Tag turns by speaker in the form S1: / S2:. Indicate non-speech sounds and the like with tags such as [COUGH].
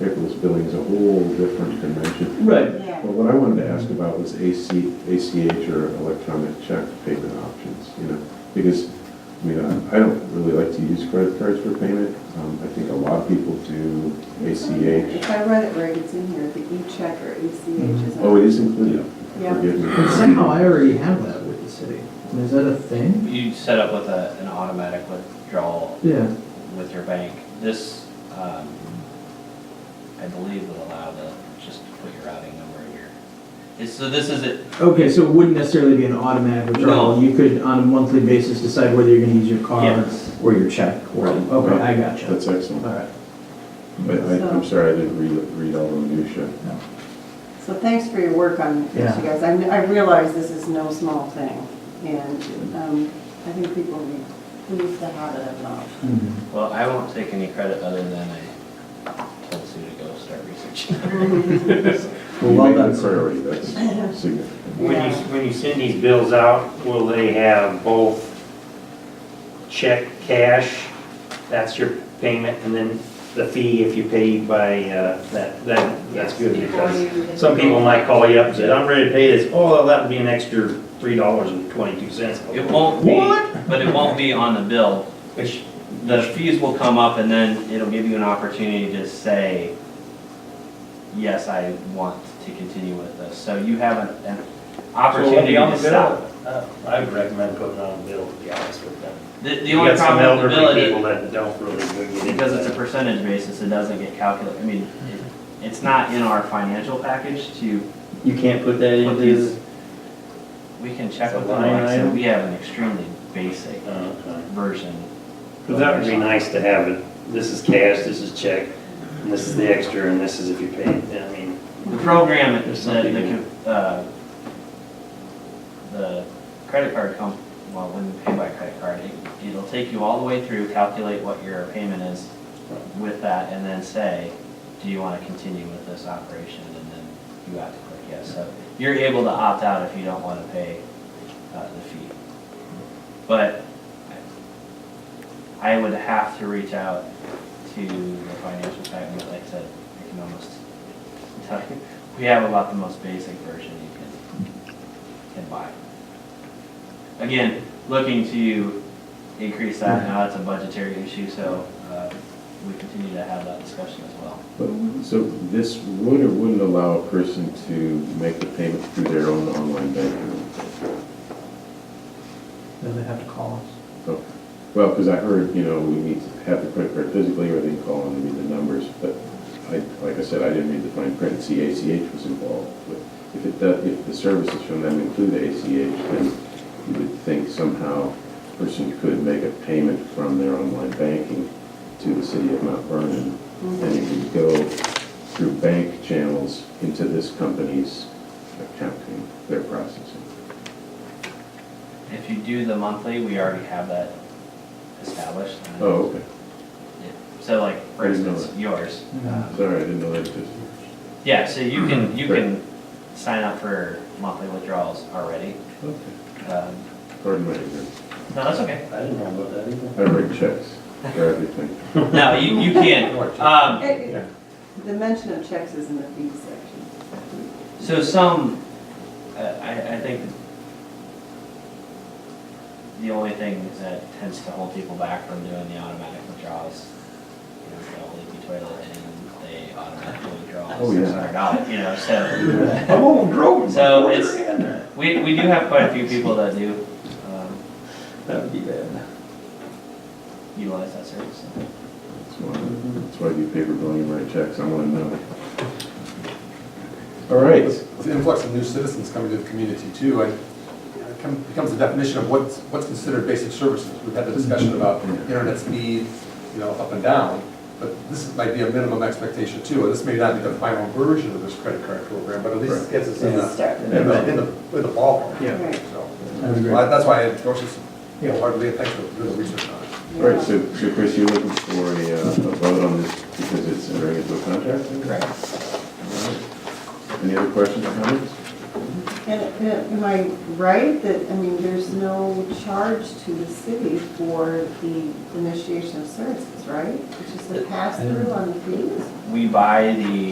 S1: Nicholas Building is a whole different convention.
S2: Right.
S1: Well,
S3: Yeah,
S1: what I wanted to ask about was AC, ACH or electronic check payment options, you know? Because, I mean, I I don't really like to use credit cards for payment. Um, I think a lot of people do ACH.
S3: if I read it right, it's in here, the e-check or ACH is.
S1: Oh, it is included?
S3: Yeah.
S1: Forgive me.
S4: Somehow I already have that with the city. I mean, Is that a thing?
S5: You set up with a, an automatic withdrawal
S4: Yeah,
S5: with your bank. This, um, I believe would allow the, just to put your routing number in your, it's, so this is it,
S4: okay, so it wouldn't necessarily be an automatic withdrawal.
S5: No.
S4: You could, on a monthly basis, decide whether you're gonna use your card
S5: Yes.
S4: or your check. or-
S5: Right.
S4: Okay, I gotcha.
S1: That's excellent.
S4: Alright.
S1: But I, I'm sorry, I didn't read, read all the minutia.
S3: So thanks for your work on this,
S4: Yeah.
S3: you guys. I kn- I realize this is no small thing, and um, I think people need, lose the habit of not.
S5: well, I won't take any credit other than I told Sue to go start researching.
S4: Well,
S1: You
S4: well
S1: made it a
S4: done, sir.
S1: priority,
S3: [LAUGHS]
S1: that's significant.
S6: When you,
S3: Yeah.
S6: when you send these bills out, will they have both check, cash, that's your payment, and then the fee if you pay by, uh, that, that, that's good because some people might call you up and say, I'm ready to pay this, oh, that would be an extra three dollars and twenty-two cents.
S5: It won't be, but it won't be on the bill.
S6: Which,
S5: The fees will come up and then it'll give you an opportunity to say, yes, I want to continue with this. So you have an, an opportunity to stop. it.
S6: Uh, I would recommend putting on a bill, to be honest with them.
S5: The, the only problem with the bill
S6: You
S5: is
S6: got some elderly people that don't really get it.
S5: because it's a percentage basis, it doesn't get calculated, I mean, it- it's not in our financial package to,
S6: You can't put that
S5: Put
S6: into
S5: these-
S6: the.
S5: we can check
S6: It's a
S5: with them,
S6: line
S5: like I said,
S6: item.
S5: we have an extremely basic
S6: Uh,
S5: version.
S6: Because that would be nice to have it, this is cash, this is check, and this is the extra, and this is if you pay, I mean,
S5: The program, the,
S6: There's something
S5: the, co- uh, the credit card comp, well, when you pay by credit card, it- it'll take you all the way through, calculate what your payment is with that, and then say, do you want to continue with this operation? And then you have to click yes. So you're able to opt out if you don't want to pay uh, the fee. But I would have to reach out to the financial department, like I said, I can almost tell you, we have about the most basic version you can, can buy. Again, looking to increase that, now it's a budgetary issue, so uh, we continue to have that discussion as well.
S1: But, so this would or wouldn't allow a person to make the payment through their own online banking?
S4: Then they have to call us.
S1: Okay. Oh, Well, because I heard, you know, we need to have the credit card physically, or they can call and read the numbers, but I, like I said, I didn't read the fine print, and see ACH was involved. But if it does, if the services from them include ACH, then you would think somehow a person could make a payment from their online banking to the city of Mount Vernon, and it would go through bank channels into this company's accounting, their processing.
S5: If you do the monthly, we already have that established. and-
S1: Oh, okay,
S5: So like, for
S1: I didn't know
S5: instance, yours. um,
S1: sorry, I didn't know that existed.
S5: Yeah, so you
S1: Mm-hmm.
S5: can, you can sign up for monthly withdrawals already.
S1: Okay.
S5: Um,
S1: Pardon my ignorance.
S5: No, that's okay.
S6: I didn't know about that either.
S1: I write checks for everything.
S5: No, you,
S1: [LAUGHS]
S5: you can. Um,
S3: It- it- The mention of checks is in the fee section.
S5: So some, uh, I, I think the only thing that tends to hold people back from doing the automatic withdrawals, you know, they'll leave the toilet and they automatically withdraw
S1: Oh, yeah.
S5: six hundred dollars, you know, so.
S6: I'm on drone.
S5: So it's- We, we do have quite a few people that do, um,
S6: That would be bad.
S5: utilize that service.
S1: That's why, that's why I do paper billing and write checks, I wanna know. All right,
S7: With the influx of new citizens coming to the community too, and it come- becomes the definition of what's, what's considered basic services. We've had the discussion
S4: Mm-hmm.
S7: about internet speed, you know, up and down, but this might be a minimum expectation too. And this may not be the final version of this credit card program, but at least it gets us in the,
S3: Start.
S7: in the, in the in the ballpark.
S4: Yeah.
S3: Right.
S7: So,
S4: I would agree.
S7: well, that's why I endorse this
S4: Yeah.
S7: wholeheartedly, and thanks for doing the research on it.
S1: all right, so, so Chris, you're looking for a, uh, a vote on this because it's entering into a contract?
S5: Correct.
S1: All right. Any other questions or comments?
S3: And uh, am I right that, I mean, there's no charge to the city for the initiation of services, right? It's just a pass-through on the fees?
S5: We buy the